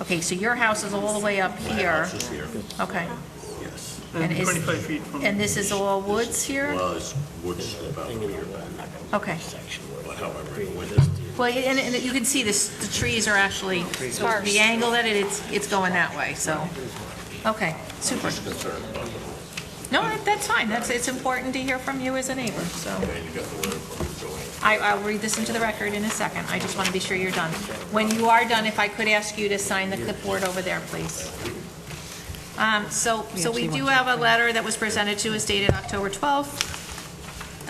Okay, so your house is all the way up My here, house is here, okay. yes. And is- 25 feet from, And this is all woods here? Well, it's woods about here back, Okay. but however, in the winter. Well, and, and you can see this, the trees are actually, so Sparse. the angle that it, it's, it's going that way, so, okay, super. No, that- that's fine, that's, it's important to hear from you as a neighbor, so. I, I'll read this into the record in a second, I just want to be sure you're done. When you are done, if I could ask you to sign the clipboard over there, please. Um, so, so we do have a letter that was presented to us dated October 12th.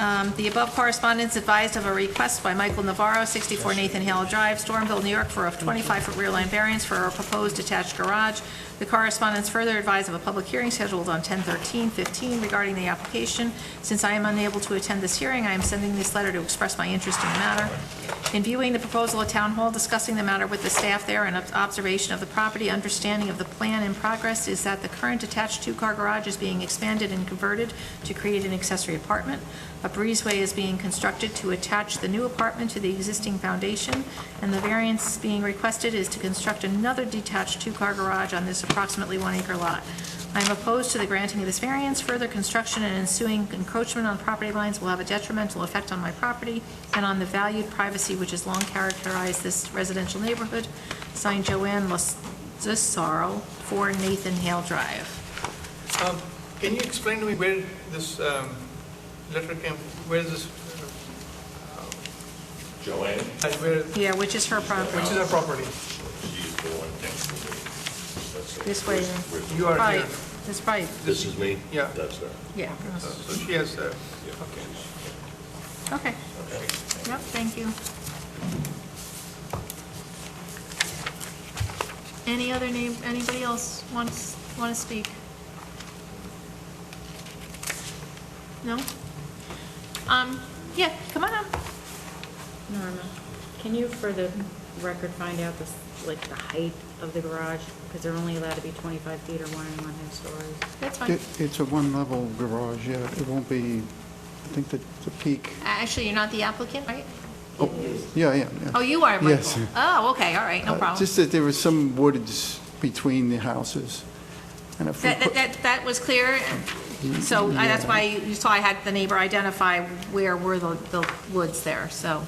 Um, The above correspondence advised of a request by Michael Navarro, 64 Nathan Hale Drive, Stormville, New York, for a 25-foot rear line variance for a proposed detached garage. The correspondence further advised of a public hearing scheduled on 10/13/15 regarding the application. Since I am unable to attend this hearing, I am sending this letter to express my interest in the matter. In viewing the proposal at Town Hall, discussing the matter with the staff there, and ob- observation of the property, understanding of the plan in progress is that the current attached two-car garage is being expanded and converted to create an accessory apartment. A breezeway is being constructed to attach the new apartment to the existing foundation, and the variance being requested is to construct another detached two-car garage on this approximately one-acre lot. I am opposed to the granting of this variance. Further construction and ensuing encroachment on property lines will have a detrimental effect on my property and on the valued privacy which has long characterized this residential neighborhood. Signed, Joanne Lasarro, 4 Nathan Hale Drive. Um, can you explain to me where this um, letter came, where this, Joanne, and where, which Yeah, which is her is property. our property? she's the one next to me. That's it. This way, Where's- where's- You are Right, here, that's right, This is me? Yeah. That's her. yeah. so she has, uh, Okay. Yep, thank you. Any other name, anybody else wants, want to speak? No? Um, yeah, come on up. Norma, can you for the record find out this, like, the height of the garage? Because they're only allowed to be 25 feet or one and one half stories. That's fine. It- It's a one-level garage, yeah, it won't be, I think that the peak, Actually, you're not the applicant, right? yeah, yeah, yeah. Oh, you are, Michael. Yes. Oh, okay, all right, no Uh, problem. Just that there was some woods between the houses. and if we That, that- put- that, that was clear, so I- that's why you saw I had the neighbor identify where were the, the woods there, so,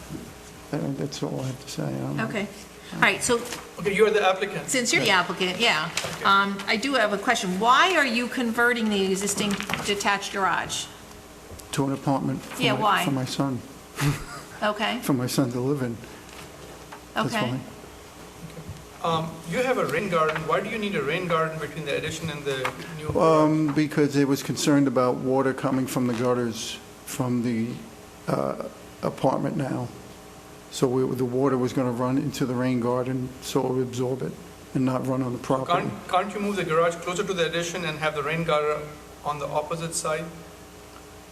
that- That's all I have to say. um, I don't know. okay. All right, so okay, you are the applicant. since you're the applicant, yeah, um, I do have a question. Why are you converting the existing detached garage? To an apartment. for Yeah, my- why? For my son, Okay, for my son to live in. That's okay. why. Um, You have a rain garden, why do you need a rain garden between the addition and the new? Um, because it was concerned about water coming from the gutters from the uh, apartment now. So we- the water was going to run into the rain garden, so it would absorb it and not run on the property. Can't, can't you move the garage closer to the addition and have the rain garden on the opposite side?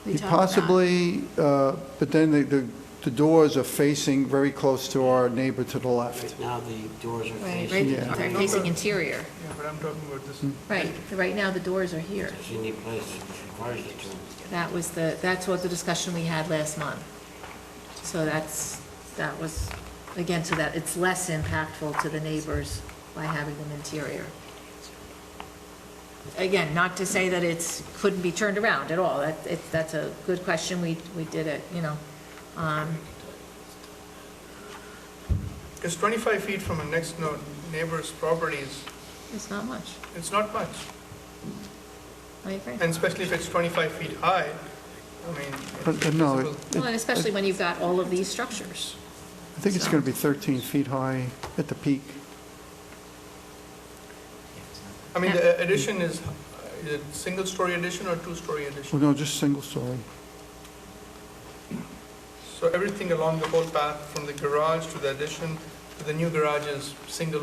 We talked about- Possibly, uh, but then the- the, the doors are facing very close to our neighbor to the left. Right now, the doors are Right, facing, right, Yeah. they're facing interior, Yeah, but I'm talking about this. right, right now the doors are here. it's in the place which requires the turn. That was the, that's what the discussion we had last month. So that's, that was, again, so that it's less impactful to the neighbors by having them interior. Again, not to say that it's, couldn't be turned around at all, that, it, that's a good question, we, we did it, you know. Um, Because 25 feet from a next no- neighbor's property is, it's not much, it's not much. I agree. And especially if it's 25 feet high, I mean. But uh, no, it- visible. it- Well, and especially when you've got all of these structures. I think it's going to be 13 feet high at the peak. I mean, the addition is, is it single-story addition or two-story addition? Well, Oh, no, just single story. So everything along the whole path, from the garage to the addition, to the new garage is single,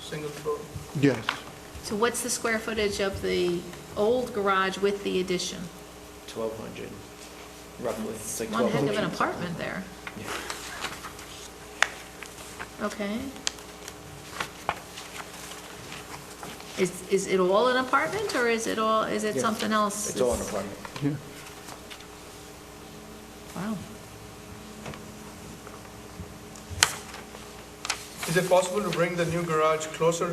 single floor. Yes, So what's the square footage of the old garage with the addition? 1,200, roughly. It's like One heck of an 1,200. apartment there. Okay. Is, is it all an apartment, or is it all, is it Yes. something else? It's all an apartment. yeah. Wow. Is it possible to bring the new garage closer